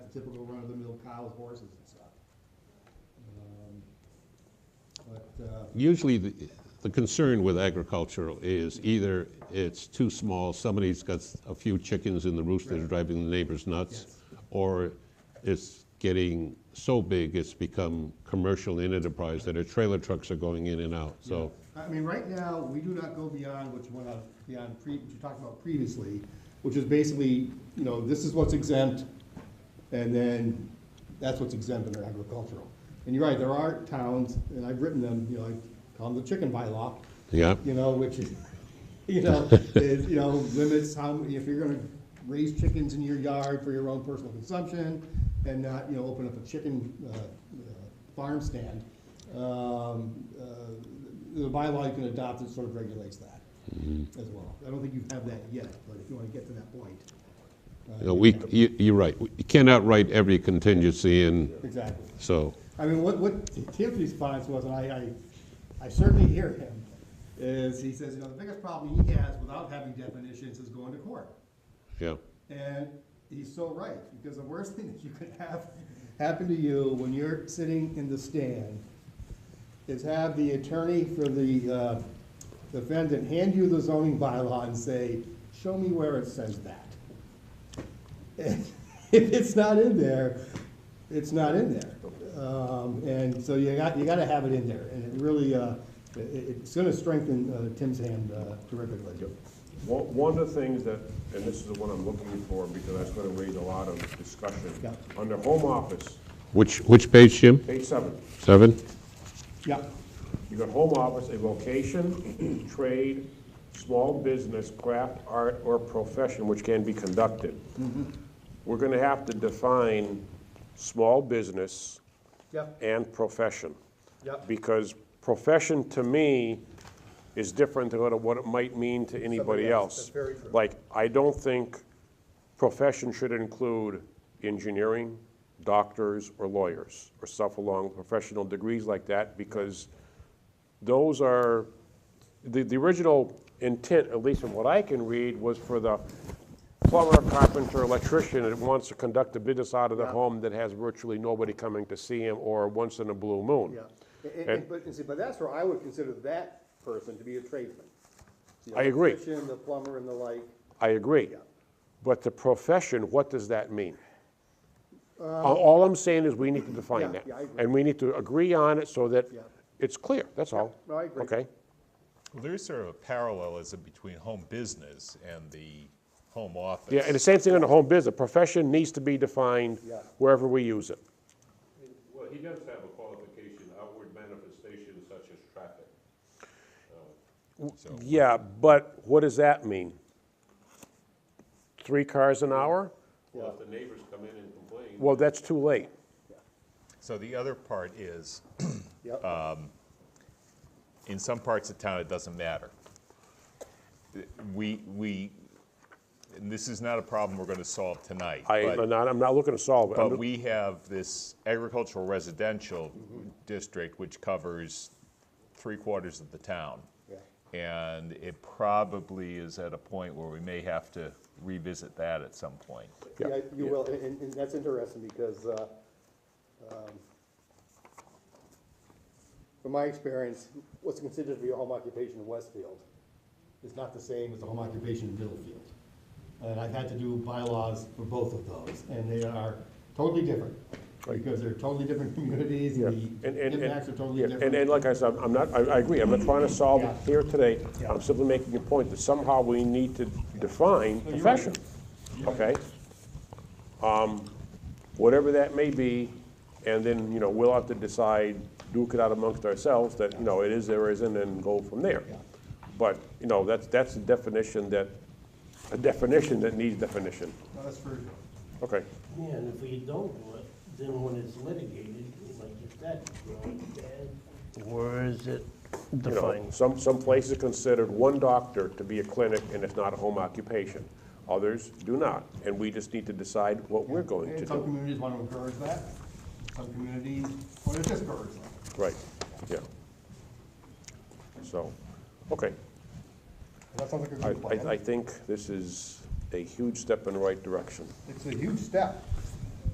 typical run-of-the-mill cows, horses and stuff. Um, But, uh, Usually, the the concern with agricultural is either it's too small, somebody's got a few chickens in the roost that are Right. driving the neighbors nuts, Yes. or it's getting so big, it's become commercial in enterprise that our trailer trucks are going in and out, so. I mean, right now, we do not go beyond what's went on, beyond pre, what you talked about previously, which is basically, you know, this is what's exempt, and then that's what's exempt under agricultural. And you're right, there are towns, and I've written them, you know, I call them the chicken bylaw, Yeah, you know, which is, you know, is, you know, limits how, many- if you're gonna raise chickens in your yard for your own personal consumption and not, you know, open up a chicken, uh, uh, farm stand, um, uh, the bylaw you can adopt that sort of regulates that as well. I don't think you have that yet, but if you wanna get to that point. uh, You know, we, you- you're right, you cannot write every contingency in, Exactly. so, I mean, what, what Tim's response was, and I, I, I certainly hear him, is he says, you know, the biggest problem he has without having definitions is going to court. yeah. And he's so right, because the worst thing that you could have happen to you when you're sitting in the stand is have the attorney for the uh, defendant hand you the zoning bylaw and say, show me where it says that. And If it's not in there, it's not in there. Um, And so you got, you gotta have it in there, and it really, uh, it- it's gonna strengthen uh, Tim's hand uh, terrifically. One one of the things that, and this is the one I'm looking for, because that's gonna raise a lot of discussion. Yeah. Under home office, Which, which page, Jim? page seven, Seven? Yeah, you got home office, a vocation, trade, small business, craft, art, or profession which can be conducted. We're gonna have to define small business Yep. and profession. Yep. Because profession to me is different than what it might mean to Somebody anybody else, else. that's very true. Like, I don't think profession should include engineering, doctors, or lawyers, or stuff along professional degrees like that, because those are, the, the original intent, at least from what I can read, was for the plumber, carpenter, electrician that wants to conduct a business out of the Yeah. home that has virtually nobody coming to see him, or once in a blue moon. Yeah, And- and, and, but, and see, but that's where I would consider that person to be a tradesman. The I agree. electrician, The plumber and the like, I agree. But the profession, what does that mean? All- All I'm saying is we need to define Uh, yeah, that. yeah, I agree. And we need to agree on it so that Yeah. it's clear, that's all. no, I agree. Okay? Well, there is sort of a parallelism between home business and the home office. Yeah, and the same thing on the home business. Profession needs to be defined Yeah. wherever we use it. Well, he does have a qualification, outward manifestation such as traffic. Yeah, but what does that mean? Three cars an hour? Well, if the neighbors come in and complain, Well, that's too late. So the other part is, yep. Uh, in some parts of town, it doesn't matter. We, we, and this is not a problem we're going to solve tonight. I, but- I'm not, I'm not looking to solve it. I'm But just- we have this agricultural residential district which covers three quarters of the town. And it probably is at a point where we may have to revisit that at some point. yeah. Yeah, you will, and- and, and that's interesting because, uh, um, from my experience, what's considered to be a home occupation in Westfield is not the same as a home occupation in Middlefield. And I've had to do bylaws for both of those, and they are totally different. Because they're totally different communities, Yeah. the And, and- and- impacts are totally yeah, different. And, and like I said, I'm not, I, I agree, I'm not trying to solve Yeah. it here today. Yeah. I'm simply making a point that somehow we need to define No, you're right. profession, okay? Um, Whatever that may be, and then, you know, we'll have to decide, duke it out amongst ourselves that, you know, it is or isn't, and go from there. Yeah. But, you know, that's, that's a definition that, a definition that needs definition, No, That's for, okay? Yeah, and if we don't do it, then when it's litigated, like you said, you know, it's bad. Where is it You know, defined? some, some places considered one doctor to be a clinic and it's not a home occupation. Others do not, and we just need to decide what we're going to and some do. communities want to encourage that, some communities want to discourage that. Right, yeah. So, okay, That sounds like a I, good I, I plan. think this is a huge step in the right direction. It's a huge step.